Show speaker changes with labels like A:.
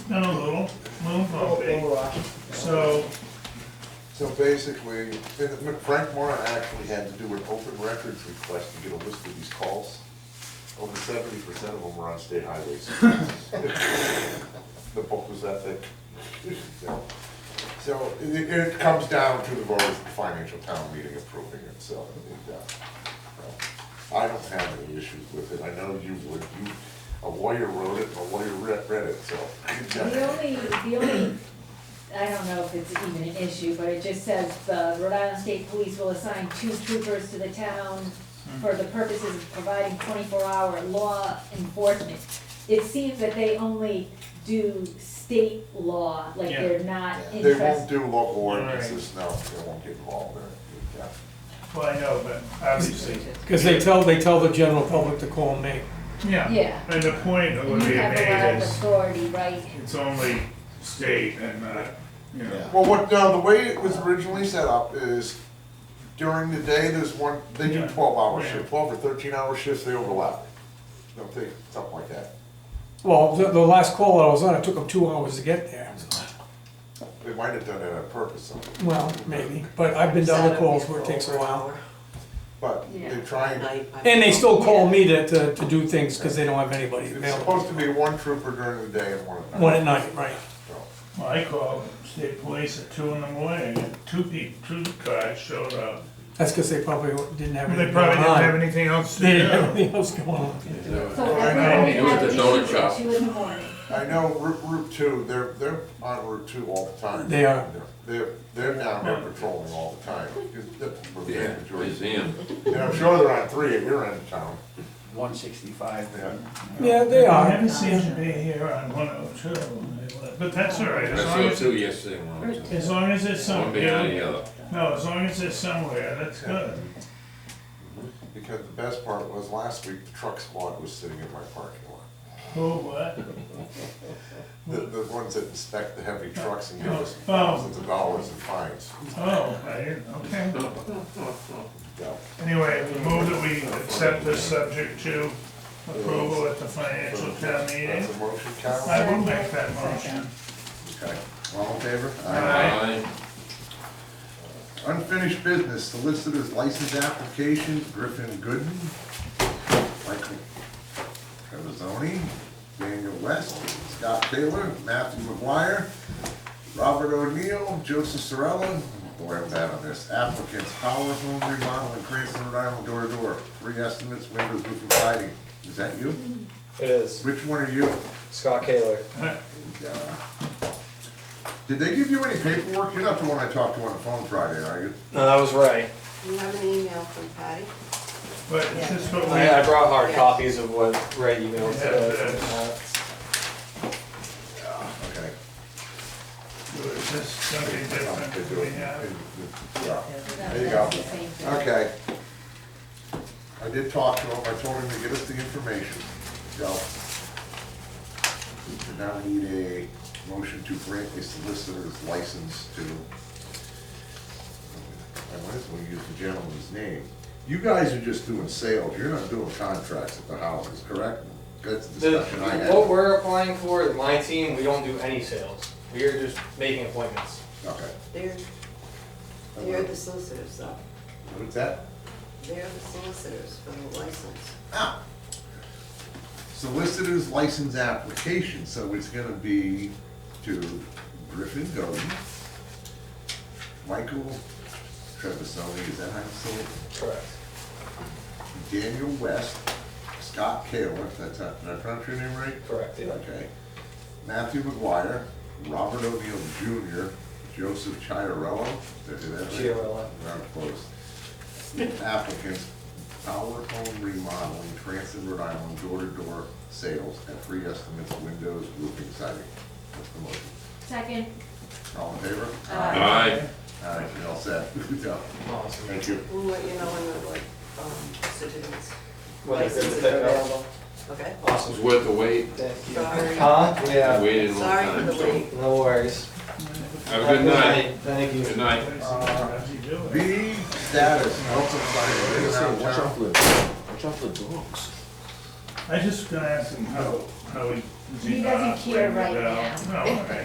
A: done a little, little bumpy.
B: Little rocky.
A: So,
C: So basically, and Frank Moran actually had to do an open records request to get a list of these calls. Over seventy percent of them were on state highways. The book was that thick. So- So it, it- it comes down to the voters' financial town meeting approving it, so. it, uh, I don't have any issues with it. I know you would, you, a lawyer wrote it, and a lawyer read, read it, so.
D: The only, the only, I don't know if it's even an issue, but it just says the Rhode Island State Police will assign two troopers to the town
E: Hmm.
D: for the purposes of providing twenty-four hour law enforcement. It seems that they only do state law, like
A: Yeah.
D: they're not
C: They won't
D: interested.
C: do local ordinances, no, they won't get involved in it. Yeah.
A: well, I know, but obviously,
F: Because they tell, they tell the general public to call me.
A: yeah.
D: Yeah,
A: And the point that
D: you
A: would be
D: have a lot
A: made
D: of
A: is,
D: authority, right?
A: it's only state and, uh, you know,
C: Well, what, no, the way it was originally set up is during the day, there's one, they do
A: Yeah.
C: twelve hour
A: Yeah.
C: shift, twelve or thirteen hour shifts, they overlap. Don't they, something like that.
F: Well, the, the last call that I was on, it took them two hours to get there.
C: They might have done that on purpose, so-
F: Well, maybe, but I've been to other calls where it takes a while.
C: but
D: Yeah.
C: they try and,
F: And they still call me to, to, to do things because they don't have anybody
C: it's
F: available.
C: supposed to be one trooper during the day and one at night.
F: One at night, right.
C: so.
A: well, I called state police at two in the morning, and two people, two cars showed up.
F: That's because they probably didn't have
A: They
F: anything
A: probably
F: going
A: didn't have
F: on.
A: anything else to
F: They didn't have
A: do.
F: anything else going on.
D: So
C: Well, I
D: everyone
C: know.
D: would
E: It was
D: have
E: the
D: an
E: donut
D: issue at
E: shop.
D: two in the morning.
C: I know Route, Route Two, they're, they're on Route Two all the time.
F: They are.
C: They're, they're down there patrolling all the time. That's where the
E: Yeah,
C: majority-
E: museum.
C: And I'm sure they're on three if you're in town.
B: One sixty-five.
F: Yeah, they
A: Never
F: are.
A: seems to be here on one oh two, but that's all right,
E: I
A: as
E: saw
A: long as,
E: two yesterday when I was in-
A: as long as it's
E: one behind
A: somewhere,
E: the other.
A: no, as long as it's somewhere, that's good.
C: Because the best part was last week, the truck squad was sitting in my parking lot.
A: Who, what?
C: The, the ones that inspect the heavy trucks and give us
A: Oh.
C: thousands of dollars in fines.
A: Oh, I didn't, okay.
C: Yeah.
A: Anyway, we move that we accept this subject to approval at the financial town meeting.
C: That's a motion,
A: I
C: Carol?
A: will make that motion.
G: Okay, all in favor?
E: Aye.
G: Unfinished business, solicitor's license application, Griffin Gooden, Michael Cavazzoni, Daniel West, Scott Taylor, Matthew McGuire, Robert O'Neill, Joseph Sorella, boy, I'm bad on this, applicants, Power Home Remodel in Cranston, Rhode Island, door to door, three estimates, windows, roof, and siding. Is that you?
H: It is.
G: Which one are you?
H: Scott Kaler.
G: Yeah. Did they give you any paperwork? You're not the one I talked to on the phone Friday, are you?
H: No, that was right.
I: You have an email from Patty?
A: But is this what we,
H: I, I brought hard
I: Yeah.
H: copies of what Ray emailed
A: Yeah,
H: today.
G: Okay.
A: is this something different that we have?
G: Yeah.
C: There you go.
D: That's the same thing.
G: Okay. I did talk to him, I told him to get us the information, so. So Now we need a motion to grant a solicitor's license to, I might as well use the gentleman's name. You guys are just doing sales, you're not doing contracts at the houses, correct? That's the
H: The,
G: discussion I had.
H: what we're applying for, in my team, we don't do any sales. We are just making appointments.
G: Okay.
I: They're, they're the solicitors though.
G: What's that?
I: They're the solicitors for the license.
G: Ah. Solicitor's license application, so it's gonna be to Griffin Godin, Michael Trevisoni, is that how it's sold?
H: Correct.
G: Daniel West, Scott Kaler, that's how, did I pronounce your name right?
H: Correct, yeah.
G: Okay. Matthew McGuire, Robert O'Neill Jr., Joseph Chiarello, did I do that right?
H: Chiarello.
G: Not close. Applicants, Power Home Remodeling, Transit, Rhode Island, door-to-door sales at free estimates, windows, roofing, siding. That's the motion.
D: Second,
G: All in favor?
D: Aye.
E: Aye.
G: All right, you're all set. Good job.
H: Awesome.
G: Thank you.
I: We'll let you know when the, like, um, certificates,
H: Whether they're
I: Licenses
H: they're
I: are
H: available.
I: okay?
E: It was
H: Awesome.
E: worth the wait.
H: Thank you.
I: Sorry.
H: Huh? Yeah.
E: Waited a long
I: Sorry for
E: time.
I: the
E: so-
I: wait.
H: No worries.
E: Have a good night.
H: Thank you.
E: Good night.
A: How's he doing?
G: B status, health and safety,
A: I just gonna ask him how, how he
D: He doesn't care right now.
A: No, I-